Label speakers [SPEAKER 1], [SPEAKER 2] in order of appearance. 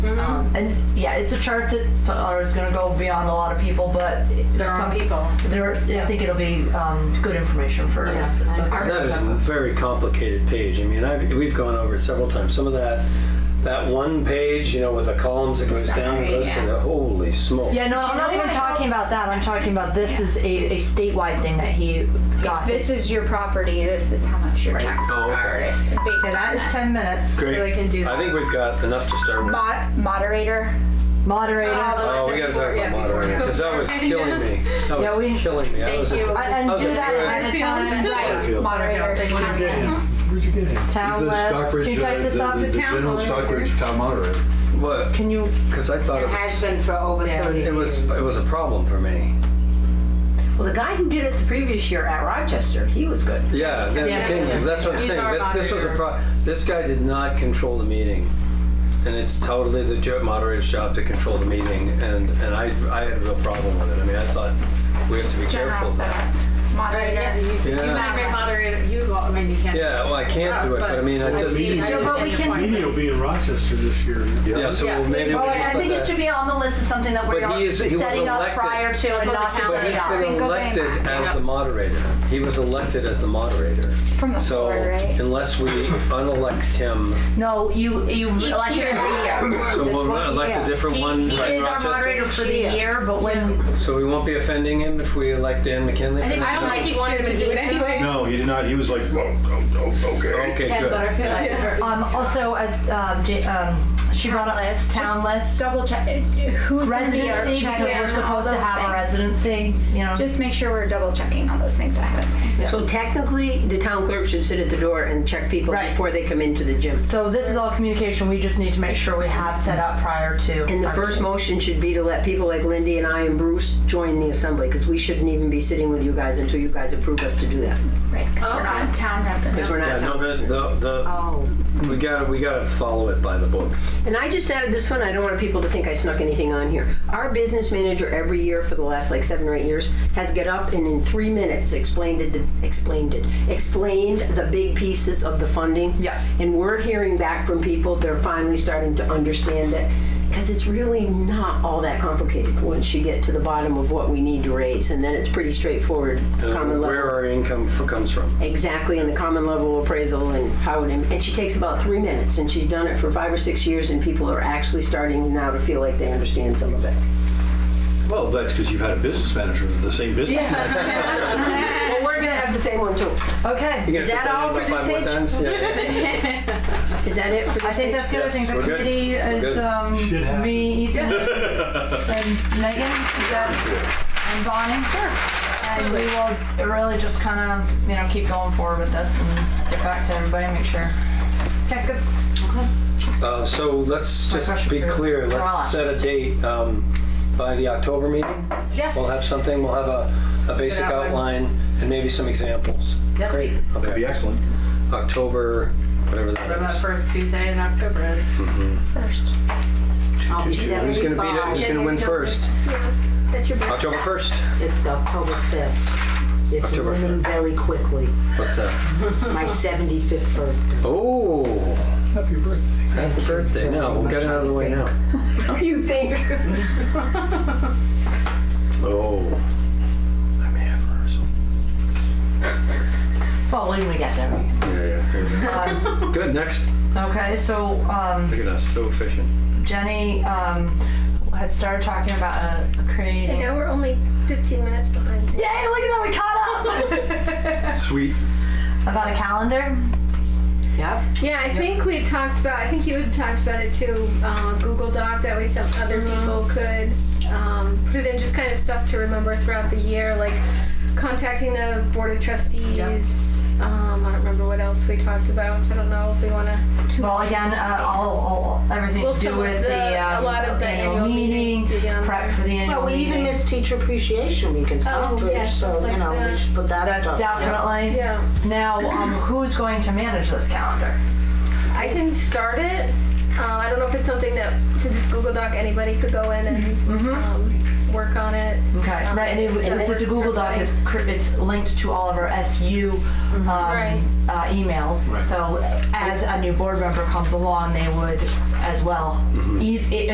[SPEAKER 1] and yeah, it's a chart that so- or is going to go beyond a lot of people, but
[SPEAKER 2] There are
[SPEAKER 1] some
[SPEAKER 2] people.
[SPEAKER 1] There, is- I think it'll be um, good information for.
[SPEAKER 2] Yeah, I- I-
[SPEAKER 3] That is a very complicated page. I mean, I've, we've gone over it several times. Some of that, that one page, you know, with the columns that goes down and goes to the, holy smoke.
[SPEAKER 1] Yeah, no,
[SPEAKER 2] you
[SPEAKER 1] I'm
[SPEAKER 2] know
[SPEAKER 1] not even
[SPEAKER 2] what
[SPEAKER 1] talking
[SPEAKER 2] else-
[SPEAKER 1] about that. I'm talking about this is a, a statewide thing that he got.
[SPEAKER 4] This is your property, this is how much your taxes
[SPEAKER 3] Oh, okay.
[SPEAKER 4] are. if-
[SPEAKER 1] And
[SPEAKER 4] Based on
[SPEAKER 1] that is
[SPEAKER 4] that.
[SPEAKER 1] 10 minutes.
[SPEAKER 3] Great.
[SPEAKER 2] So I can do
[SPEAKER 3] I
[SPEAKER 2] that.
[SPEAKER 3] think we've got enough to start with.
[SPEAKER 4] Mod- Moderator,
[SPEAKER 1] Moderator.
[SPEAKER 4] Oh, the
[SPEAKER 3] Oh, we gotta talk
[SPEAKER 2] Yeah,
[SPEAKER 3] about
[SPEAKER 2] before-
[SPEAKER 3] moderator, because that was killing me. That
[SPEAKER 1] Yeah, we-
[SPEAKER 3] was killing me. I
[SPEAKER 4] thank
[SPEAKER 3] was-
[SPEAKER 4] you.
[SPEAKER 1] I- and
[SPEAKER 3] How's
[SPEAKER 1] do
[SPEAKER 3] it
[SPEAKER 1] that
[SPEAKER 3] feel?
[SPEAKER 1] at a time.
[SPEAKER 4] Right,
[SPEAKER 5] Fairfield.
[SPEAKER 4] moderator.
[SPEAKER 2] Fairfield.
[SPEAKER 4] town
[SPEAKER 2] Fairfield.
[SPEAKER 4] tax.
[SPEAKER 5] Where'd you get it?
[SPEAKER 1] Town
[SPEAKER 5] This is
[SPEAKER 1] list.
[SPEAKER 5] Stockbridge,
[SPEAKER 1] Can you
[SPEAKER 5] uh,
[SPEAKER 1] type this
[SPEAKER 5] the-
[SPEAKER 1] up?
[SPEAKER 5] The the
[SPEAKER 2] Town
[SPEAKER 5] general
[SPEAKER 2] hall.
[SPEAKER 5] Stockbridge town moderator.
[SPEAKER 3] What?
[SPEAKER 1] Can you?
[SPEAKER 3] Because I thought it
[SPEAKER 6] It has
[SPEAKER 3] was,
[SPEAKER 6] been for over
[SPEAKER 2] Yeah.
[SPEAKER 6] 30
[SPEAKER 3] it was,
[SPEAKER 6] years.
[SPEAKER 3] it was a problem for me.
[SPEAKER 7] Well, the guy who did it the previous year at Rochester, he was good.
[SPEAKER 3] Yeah, Dan
[SPEAKER 1] Yeah.
[SPEAKER 3] Kingham, that's what I'm
[SPEAKER 2] He's
[SPEAKER 3] saying.
[SPEAKER 2] our
[SPEAKER 3] That- This was a
[SPEAKER 2] moderator.
[SPEAKER 3] pro, this guy did not control the meeting. And it's totally the jo- moderator's job to control the meeting, and, and I, I had a real problem with it. I mean, I thought, we have to be
[SPEAKER 4] General
[SPEAKER 3] careful of
[SPEAKER 4] stuff.
[SPEAKER 3] that.
[SPEAKER 2] Right, yeah,
[SPEAKER 4] Moderator.
[SPEAKER 2] you, you
[SPEAKER 3] Yeah.
[SPEAKER 2] might be moderated, you go, I mean, you can't.
[SPEAKER 3] Yeah, well, I can't do it, but I mean, I just,
[SPEAKER 2] Meeting.
[SPEAKER 3] yeah,
[SPEAKER 1] No, but we can-
[SPEAKER 5] Amy will be in Rochester this year.
[SPEAKER 3] so we'll maybe
[SPEAKER 1] Oh,
[SPEAKER 3] we'll
[SPEAKER 1] I
[SPEAKER 3] just
[SPEAKER 1] think it
[SPEAKER 3] let
[SPEAKER 1] should
[SPEAKER 3] that.
[SPEAKER 1] be on the list as something that
[SPEAKER 3] But
[SPEAKER 1] we're
[SPEAKER 3] he is- he was
[SPEAKER 1] setting up
[SPEAKER 3] elected.
[SPEAKER 1] prior to and
[SPEAKER 2] on
[SPEAKER 1] not
[SPEAKER 2] the
[SPEAKER 3] But
[SPEAKER 1] counting
[SPEAKER 3] he's
[SPEAKER 1] it out.
[SPEAKER 3] been
[SPEAKER 4] Single day
[SPEAKER 3] elected
[SPEAKER 4] moderator.
[SPEAKER 3] as the moderator. He was elected as the moderator.
[SPEAKER 4] From the
[SPEAKER 3] So
[SPEAKER 4] floor, right?
[SPEAKER 3] unless we unelect him,
[SPEAKER 1] No, you, you elect him every year.
[SPEAKER 3] so
[SPEAKER 6] That's
[SPEAKER 3] we'll
[SPEAKER 6] what he
[SPEAKER 3] elect a
[SPEAKER 6] is.
[SPEAKER 3] different one.
[SPEAKER 1] He
[SPEAKER 3] like
[SPEAKER 1] is our
[SPEAKER 3] Rochester.
[SPEAKER 1] moderator for the
[SPEAKER 6] Yeah.
[SPEAKER 1] year, but when,
[SPEAKER 3] So we won't be offending him if we elect Dan McKinley?
[SPEAKER 2] I think, I don't think he wanted to do it anyway.
[SPEAKER 5] No, he did not. He was like, oh, oh, oh, okay.
[SPEAKER 3] Okay,
[SPEAKER 2] Ken
[SPEAKER 3] good.
[SPEAKER 2] Butterfield. Yeah.
[SPEAKER 1] um, also as, um, J- um, she brought up
[SPEAKER 4] Just
[SPEAKER 1] town list,
[SPEAKER 4] Double check, who's gonna be our
[SPEAKER 1] residency,
[SPEAKER 4] check
[SPEAKER 1] because we're supposed to have a residency, you know?
[SPEAKER 4] Just make sure we're double checking all those things ahead of time.
[SPEAKER 7] So technically, the town clerk should sit at the door and check people
[SPEAKER 1] Right.
[SPEAKER 7] before they come into the gym.
[SPEAKER 1] So this is all communication, we just need to make sure we have set up prior to.
[SPEAKER 7] And the
[SPEAKER 1] our
[SPEAKER 7] first
[SPEAKER 1] meeting.
[SPEAKER 7] motion should be to let people like Lindy and I and Bruce join the assembly, because we shouldn't even be sitting with you guys until you guys approve us to do that,
[SPEAKER 4] Right, because we're
[SPEAKER 2] Okay.
[SPEAKER 4] not town
[SPEAKER 7] because
[SPEAKER 4] residents.
[SPEAKER 7] we're
[SPEAKER 3] Yeah,
[SPEAKER 7] not
[SPEAKER 3] no,
[SPEAKER 7] town
[SPEAKER 3] the,
[SPEAKER 7] residents.
[SPEAKER 3] the, the-
[SPEAKER 7] Oh.
[SPEAKER 3] we gotta, we gotta follow it by the book.
[SPEAKER 7] And I just added this one, I don't want people to think I snuck anything on here. Our business manager every year for the last like seven or eight years has get up and in three minutes explained it, explained it, explained the big pieces of the funding.
[SPEAKER 1] Yeah.
[SPEAKER 7] And we're hearing back from people, they're finally starting to understand it. Because it's really not all that complicated once you get to the bottom of what we need to raise. And then it's pretty straightforward, common
[SPEAKER 3] And
[SPEAKER 7] level.
[SPEAKER 3] Uh, where our income f- comes from.
[SPEAKER 7] Exactly, and the common level appraisal and how it, and she takes about three minutes, and she's done it for five or six years, and people are actually starting now to feel like they understand some of it.
[SPEAKER 5] Well, that's because you've had a business manager, the same business manager.
[SPEAKER 7] Well, we're gonna have the same one too.
[SPEAKER 1] Okay,
[SPEAKER 3] You
[SPEAKER 7] Is
[SPEAKER 3] guys
[SPEAKER 7] that
[SPEAKER 3] put
[SPEAKER 7] all
[SPEAKER 3] in
[SPEAKER 7] for
[SPEAKER 3] by
[SPEAKER 7] this
[SPEAKER 3] five more
[SPEAKER 7] page?
[SPEAKER 3] times? Yeah.
[SPEAKER 7] Is that it for this
[SPEAKER 1] I think that's good, I
[SPEAKER 3] Yes,
[SPEAKER 1] think the
[SPEAKER 3] we're good.
[SPEAKER 1] committee
[SPEAKER 3] We're
[SPEAKER 1] is,
[SPEAKER 3] good.
[SPEAKER 1] um,
[SPEAKER 5] Shit happens.
[SPEAKER 1] me, Ethan, and Megan, is that, and Bonnie. And we will really just kind of, you know, keep going forward with this and get back to everybody and make sure. Okay, good.
[SPEAKER 3] Uh, so let's
[SPEAKER 1] My
[SPEAKER 3] just
[SPEAKER 1] question
[SPEAKER 3] be
[SPEAKER 1] for you.
[SPEAKER 3] clear,
[SPEAKER 1] We're all
[SPEAKER 3] let's set a date, um, by the October meeting.
[SPEAKER 2] Yeah.
[SPEAKER 3] We'll have something, we'll have a, a basic
[SPEAKER 2] outline.
[SPEAKER 3] outline and maybe some examples.
[SPEAKER 2] Great.
[SPEAKER 5] That'd be
[SPEAKER 3] Okay,
[SPEAKER 5] excellent.
[SPEAKER 3] October, whatever
[SPEAKER 2] What
[SPEAKER 3] that
[SPEAKER 2] about
[SPEAKER 3] is.
[SPEAKER 2] first Tuesday in October is?
[SPEAKER 4] First.
[SPEAKER 6] I'll be
[SPEAKER 3] Who's gonna beat
[SPEAKER 6] 75.
[SPEAKER 3] it, who's gonna win first?
[SPEAKER 4] That's your birthday.
[SPEAKER 3] October first,
[SPEAKER 6] It's October 5th. It's
[SPEAKER 3] October
[SPEAKER 6] moving very quickly.
[SPEAKER 3] what's that?
[SPEAKER 6] It's my 75th birthday.
[SPEAKER 3] Oh,
[SPEAKER 5] Happy birthday.
[SPEAKER 3] happy birthday, no, we'll get it out of the way now.
[SPEAKER 7] You think?
[SPEAKER 3] Oh. I may have rehearsal.
[SPEAKER 1] Well, when we get there.
[SPEAKER 3] Yeah,
[SPEAKER 1] Um,
[SPEAKER 3] yeah. Good, next,
[SPEAKER 1] Okay, so, um,
[SPEAKER 3] look at us, so efficient.
[SPEAKER 1] Jenny um, had started talking about a, a creating.
[SPEAKER 8] And now we're only 15 minutes behind.
[SPEAKER 1] Yay! Look at that, we caught up.
[SPEAKER 5] Sweet.
[SPEAKER 1] about a calendar.
[SPEAKER 6] Yep.
[SPEAKER 8] Yeah, I think we talked about, I think you had talked about it too, uh, Google Doc, that way some other people could um, put it in, just kind of stuff to remember throughout the year, like contacting the Board of Trustees. Um, I don't remember what else we talked about. I don't know if we want to.
[SPEAKER 1] Well, again, uh, all, all everything
[SPEAKER 8] Well,
[SPEAKER 1] to do
[SPEAKER 8] some of
[SPEAKER 1] with the,
[SPEAKER 8] the- a
[SPEAKER 1] um,
[SPEAKER 8] lot of the annual
[SPEAKER 1] meeting,
[SPEAKER 8] meeting began
[SPEAKER 1] prep
[SPEAKER 8] there.
[SPEAKER 1] for the annual
[SPEAKER 6] Well, we
[SPEAKER 1] meeting.
[SPEAKER 6] even missed teacher appreciation week and
[SPEAKER 8] Oh,
[SPEAKER 6] stuff too,
[SPEAKER 8] yeah,
[SPEAKER 6] so,
[SPEAKER 8] like
[SPEAKER 6] you know, we
[SPEAKER 8] that.
[SPEAKER 6] should put that
[SPEAKER 1] That's
[SPEAKER 6] stuff.
[SPEAKER 1] definitely.
[SPEAKER 8] Yeah.
[SPEAKER 1] Now, um, who's going to manage this calendar?
[SPEAKER 8] I can start it. Uh, I don't know if it's something that, since it's Google Doc, anybody could go in and um, work on it.
[SPEAKER 1] Okay,
[SPEAKER 8] Um,
[SPEAKER 1] right. And it,
[SPEAKER 8] so
[SPEAKER 1] since it's a Google Doc, it's cr- it's linked to all of our SU um,
[SPEAKER 8] Mm-hmm. Right.
[SPEAKER 1] uh, emails.
[SPEAKER 6] Mm-hmm.
[SPEAKER 1] So as a new board member comes along, they would as well. Eas- it-